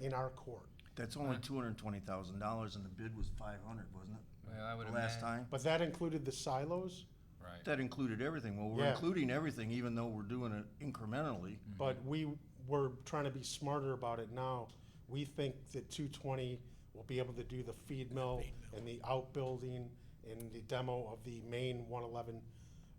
in our court. That's only two hundred and twenty thousand dollars and the bid was five hundred, wasn't it? Well, I would The last imagine- time? But that included the silos, Right. That included everything. Well, we're Yeah. including everything even though we're doing it incrementally. Mm-hmm. but we were trying to be smarter about it now. We think that two twenty will be able to do the feed mill and the outbuilding and the demo of the main one eleven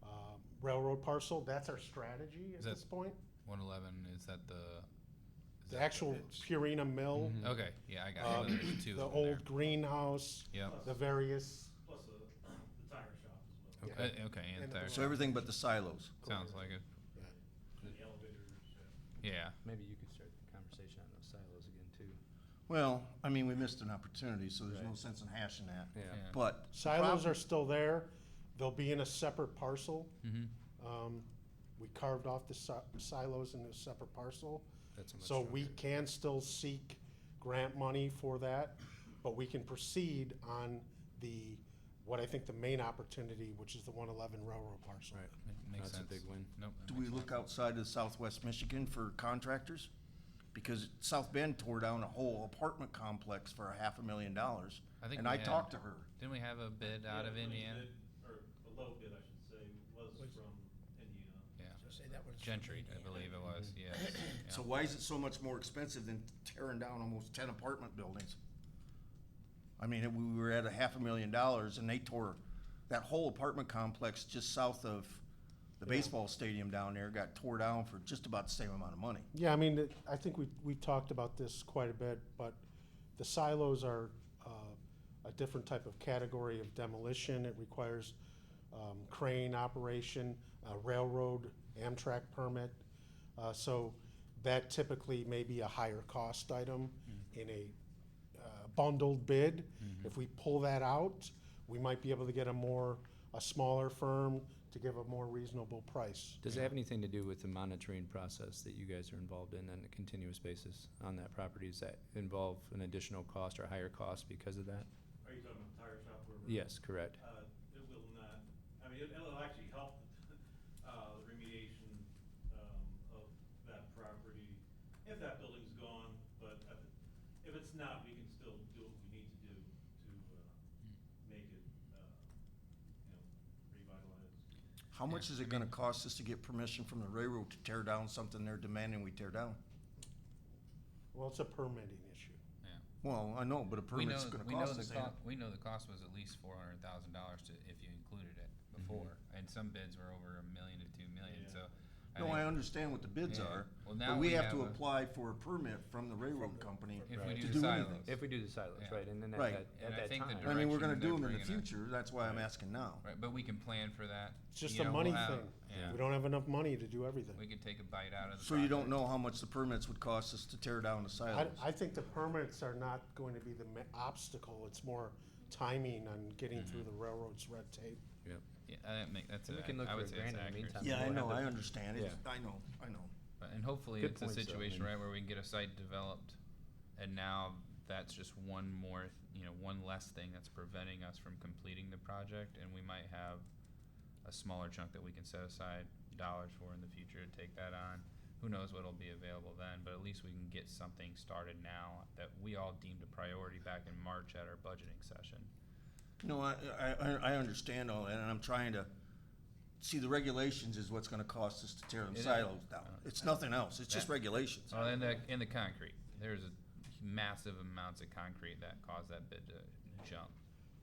uh, railroad parcel. That's our strategy at Is that- this point. One eleven, is that the? is The that- actual Purina mill, Mm-hmm. Okay, yeah, I got it. um, There's two the of them there. old greenhouse, Yep. the various, plus the, the tire shop as well, yeah. Okay, Uh, okay, and And there, So everything but the silos. sounds like it. and the elevators. Yeah, Maybe you could start the conversation on those silos again too. Well, I mean, we missed an opportunity, so there's no Right. sense in hashing that. Yeah. But silos are still there. They'll be in a separate parcel. hmm Um, we carved off the si- silos into a separate parcel, That's a much so we stronger- can still seek grant money for that, but we can proceed on the, what I think the main opportunity, which is the one eleven railroad parcel. Right. makes That's a sense. big win. Nope. that do makes we a lot look of- outside of southwest Michigan for contractors? Because South Bend tore down a whole apartment complex for a half a million dollars. I think And we I had- talked to her. Didn't we have a bid out of Indiana? Or the low bid, I should say, was from Indiana. Yeah, So say that was. Gentry, I believe it was, Mm-hmm. yeah. yeah. So why is it so much more expensive than tearing down almost ten apartment buildings? I mean, if we were at a half a million dollars and they tore that whole apartment complex just south of the baseball stadium down there, got tore down for just about the same amount of money. Yeah, I mean, it- I think we, we talked about this quite a bit, but the silos are, uh, a different type of category of demolition. It requires, um, crane operation, a railroad, Amtrak permit. Uh, so that typically may be a higher cost item in a, uh, bundled bid. If we pull that out, we might be able to get a more, a smaller firm to give a more reasonable price. Does it have anything to do with the monitoring process that you guys are involved in on a continuous basis on that property? Does that involve an additional cost or higher cost because of that? Are you talking about the tire shop where? we're- Yes, correct. Uh, it will not, I mean, it- it'll actually help, uh, the remediation, um, of that property, if that building's gone, but at the- if it's not, we can still do what we need to do to, uh, Hmm. make it, uh, you know, revitalized. How much is it gonna cost us to get permission from the railroad to tear down something they're demanding we tear down? Well, it's a permitting issue. Well, I know, but a We know, permit's gonna we know cost the us. cost, we know the cost was at least four hundred thousand dollars to, if you included it Mm-hmm. before, and some bids were over a million to two million, Yeah. so. No, think I understand what the bids Yeah. are, Well, but now we we have have to a- apply for a permit from the railroad company. If we Right. do to the do silos. anything. If we do the silos, Yeah. right, and then at Right. that, And I at that think the time. I mean, we're gonna direction do them they're in the bringing it. future, that's why I'm asking now. Right, but we can plan for that. It's just you a know, money we'll have- thing. Yeah, We don't have enough money to do everything. we could take a bite out of the. So you don't project. know how much the permits would cost us to tear down the I, silos? I think the permits are not going to be the ma- obstacle, it's more timing on getting through Mm-hmm. the railroad's red tape. Yeah, that make, that's, And we a- can look I would for a say it's grant in the accurate. meantime. Yeah, I We'll know, have I the- understand, it's, I know, I know. But- And hopefully Good it's a points, though, I situation, mean- right, where we can get a site developed and now that's just one more, th- you know, one less thing that's preventing us from completing the project and we might have a smaller chunk that we can set aside dollars for in the future to take that on. Who knows what'll be available then, but at least we can get something started now that we all deemed a priority back in March at our budgeting session. No, I, I, I- I understand all that, and I'm trying to, see, the regulations is what's gonna cost us to tear them It is. silos down. It's nothing else, it's just That- regulations. Oh, and the, and the concrete, there's a massive amounts of concrete that caused that bid to jump.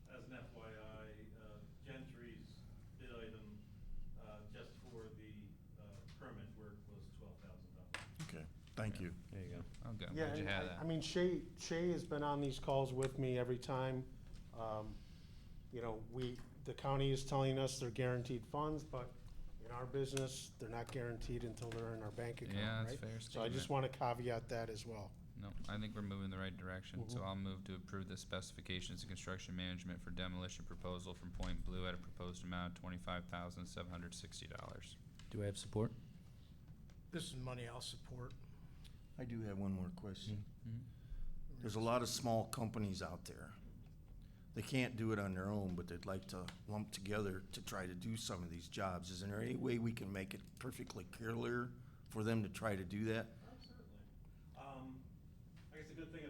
As an FYI, uh, Gentry's bid item, uh, just for the, uh, permit work was twelve thousand dollars. Okay, thank you. There you go. Oh, good, I'm Yeah, glad you and had I- that. I mean, Shay, Shay has been on these calls with me every time. Um, You know, we, the county is telling us they're guaranteed funds, but in our business, they're not guaranteed until they're in our bank account, Yeah, that's right? fair So I just wanna caveat that as well. No, I think we're moving in the right direction, so Mm-hmm. I'll move to approve the specifications and construction management for demolition proposal from Point Blue at a proposed amount of twenty-five thousand seven hundred sixty dollars. Do I have support? This is money I'll support. I do have one more question. There's a lot of small companies out there. They can't do it on their own, but they'd like to lump together to try to do some of these jobs. Is there any way we can make it perfectly clear for them to try to do that? Certainly. Um, like I said, a good thing